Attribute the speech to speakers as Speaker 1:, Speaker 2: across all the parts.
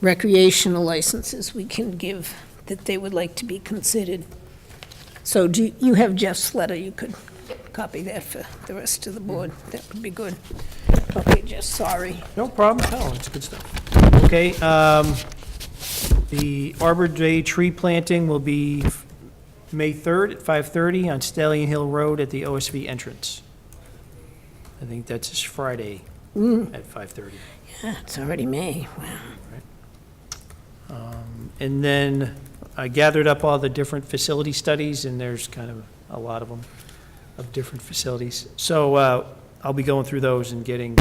Speaker 1: recreational licenses we can give that they would like to be considered. So do, you have Jeff's letter, you could copy that for the rest of the board, that would be good. Okay, Jeff, sorry.
Speaker 2: No problem at all, it's good stuff. Okay, um, the Arbor Day tree planting will be May 3rd at 5:30 on Stallion Hill Road at the OSV entrance. I think that's this Friday at 5:30.
Speaker 1: Ah, It's already May, wow.
Speaker 2: Um, And then I gathered up all the different facility studies, and there's kind of a lot of them, of different facilities. So uh, I'll be going through those and getting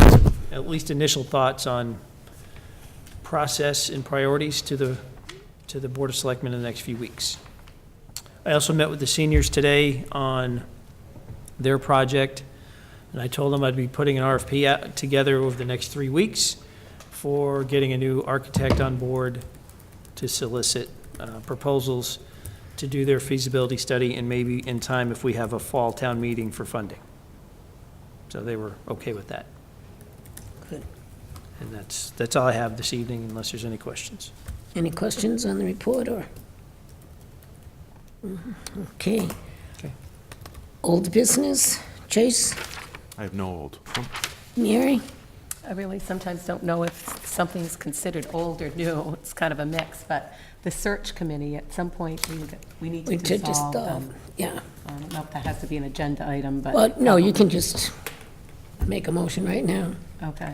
Speaker 2: at least initial thoughts on process and priorities to the, to the Board of Selectmen in the next few weeks. I also met with the seniors today on their project, and I told them I'd be putting an RFP out together over the next three weeks for getting a new architect on board to solicit uh, proposals to do their feasibility study, and maybe in time if we have a fall town meeting for funding. So they were okay with that.
Speaker 1: Good.
Speaker 2: And that's, that's all I have this evening, unless there's any questions.
Speaker 1: Any questions on the report, or? Mhm, Okay.
Speaker 2: Okay.
Speaker 1: Old business, Chase,
Speaker 3: I have no old.
Speaker 1: Mary?
Speaker 4: I really sometimes don't know if something's considered old or new. It's kind of a mix, but the search committee, at some point, we, we need
Speaker 1: We
Speaker 4: to
Speaker 1: did just,
Speaker 4: dissolve
Speaker 1: uh,
Speaker 4: them.
Speaker 1: yeah,
Speaker 4: I don't know if that has to be an agenda item, but.
Speaker 1: well, no, you can just make a motion right now.
Speaker 4: Okay.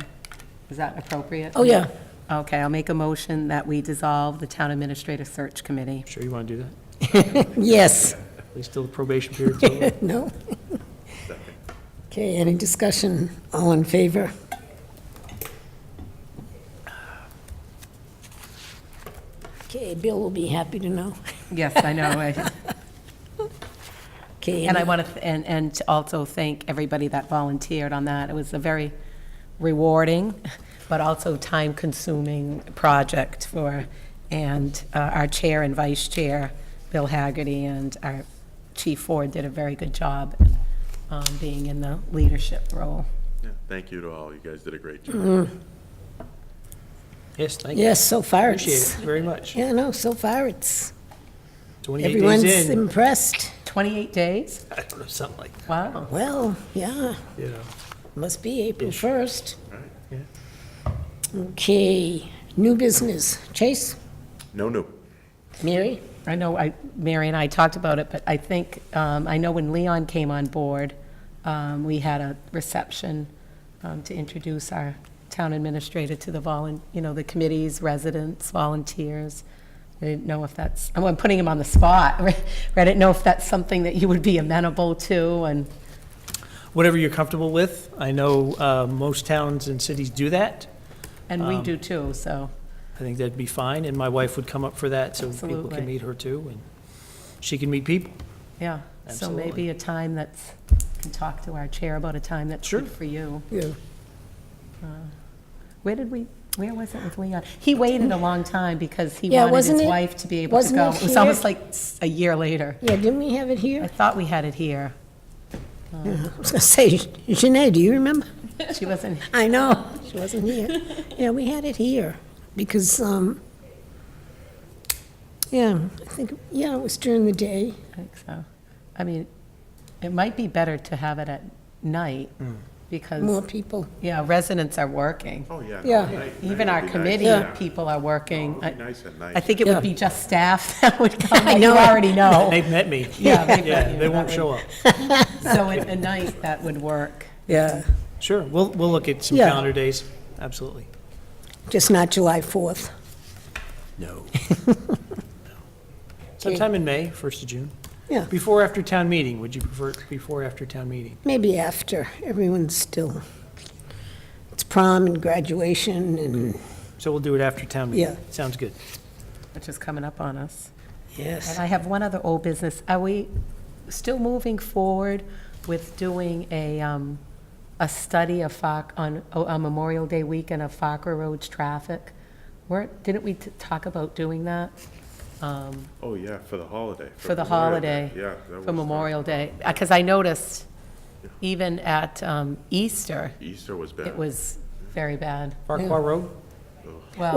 Speaker 4: Is that appropriate?
Speaker 1: Oh, yeah,
Speaker 4: Okay, I'll make a motion that we dissolve the town administrative search committee.
Speaker 2: Sure you want to do that?
Speaker 1: yes,
Speaker 2: At least till the probation period's over?
Speaker 1: no? Okay, any discussion, all in favor? Okay, Bill will be happy to know.
Speaker 4: Yes, I know. I-
Speaker 1: Okay,
Speaker 4: And I
Speaker 1: any-
Speaker 4: want to, and, and to also thank everybody that volunteered on that. It was a very rewarding, but also time-consuming project for, and uh, our chair and vice chair, Bill Haggerty, and our chief Ford did a very good job um, being in the leadership role.
Speaker 3: Thank you to all. You guys did a great job.
Speaker 2: Yes, thank you.
Speaker 1: yes, so far
Speaker 2: Appreciate
Speaker 1: it's,
Speaker 2: it very much.
Speaker 1: yeah, no, so far it's,
Speaker 2: 28 days
Speaker 1: everyone's
Speaker 2: in,
Speaker 1: impressed.
Speaker 4: 28 days?
Speaker 2: I don't know, something like that,
Speaker 4: Wow.
Speaker 1: Well, yeah,
Speaker 2: you know.
Speaker 1: must be April 1st.
Speaker 2: yeah.
Speaker 1: Okay, new business, Chase,
Speaker 3: No, no.
Speaker 1: Mary?
Speaker 4: I know, I, Mary and I talked about it, but I think, um, I know when Leon came on board, um, we had a reception, um, to introduce our town administrator to the volun, you know, the committees, residents, volunteers. I didn't know if that's, oh, I'm putting him on the spot, right? I didn't know if that's something that you would be amenable to, and,
Speaker 2: Whatever you're comfortable with. I know uh, most towns and cities do that.
Speaker 4: and we do too, so.
Speaker 2: I think that'd be fine, and my wife would come up for that, so people
Speaker 4: Absolutely.
Speaker 2: can meet her too, and she can meet people.
Speaker 4: Yeah, so
Speaker 2: Absolutely.
Speaker 4: maybe a time that's, can talk to our chair about a time that's
Speaker 2: Sure.
Speaker 4: good for you. Uh,
Speaker 1: Yeah.
Speaker 4: Where did we, where was it with Leon? He waited a long time because he
Speaker 1: Yeah,
Speaker 4: wanted his
Speaker 1: wasn't it-
Speaker 4: wife to be able to
Speaker 1: wasn't
Speaker 4: go.
Speaker 1: it
Speaker 4: It was
Speaker 1: here?
Speaker 4: almost like s- a year later.
Speaker 1: Yeah, didn't we have it
Speaker 4: I
Speaker 1: here?
Speaker 4: thought we had it here.
Speaker 1: I was gonna say, Janae, do you remember?
Speaker 4: She wasn't,
Speaker 1: I know, she wasn't here. Yeah, we had it here, because, um, yeah, I think, yeah, it was during the day.
Speaker 4: I think so. I mean, it might be better to have it at night
Speaker 2: Mm.
Speaker 1: More
Speaker 4: because,
Speaker 1: people,
Speaker 4: yeah, residents are working.
Speaker 3: Oh, yeah. no,
Speaker 1: Yeah.
Speaker 3: night- night
Speaker 4: Even
Speaker 3: would
Speaker 4: our
Speaker 3: be nice.
Speaker 4: committee
Speaker 3: Yeah.
Speaker 4: people are working.
Speaker 3: It would be nice at
Speaker 4: I
Speaker 3: night.
Speaker 4: think it would
Speaker 1: Yeah.
Speaker 4: be just staff that would come,
Speaker 1: I
Speaker 4: like you
Speaker 1: know.
Speaker 4: already know.
Speaker 2: They've met me.
Speaker 4: Yeah, they've met
Speaker 2: Yeah,
Speaker 4: you.
Speaker 2: they won't
Speaker 4: That
Speaker 2: show up.
Speaker 4: would- So at at night, that would work.
Speaker 1: yeah,
Speaker 2: Sure, we'll, we'll look at some
Speaker 1: Yeah.
Speaker 2: calendar days, absolutely.
Speaker 1: just not July 4th.
Speaker 2: No. Sometime in May, first of June.
Speaker 1: Yeah,
Speaker 2: Before, or after town meeting, would you prefer it before, or after town meeting?
Speaker 1: maybe after, everyone's still, it's prom and graduation and,
Speaker 2: So we'll do it after town meeting.
Speaker 1: Yeah.
Speaker 2: Sounds good.
Speaker 4: Which is coming up on us. And
Speaker 1: yes.
Speaker 4: I have one other old business. Are we still moving forward with doing a, um, a study of Foc, on, on Memorial Day weekend of Fokker Road's traffic? Weren't, didn't we t- talk about doing that? Um,
Speaker 3: Oh, yeah, for the holiday.
Speaker 4: for the
Speaker 3: Memorial Day.
Speaker 4: holiday.
Speaker 3: Yeah. that
Speaker 4: For
Speaker 3: was, uh,
Speaker 4: Memorial Day, because I noticed even at, um, Easter,
Speaker 3: Easter was bad.
Speaker 4: it was very bad.
Speaker 2: Farquhar Road?
Speaker 4: Well,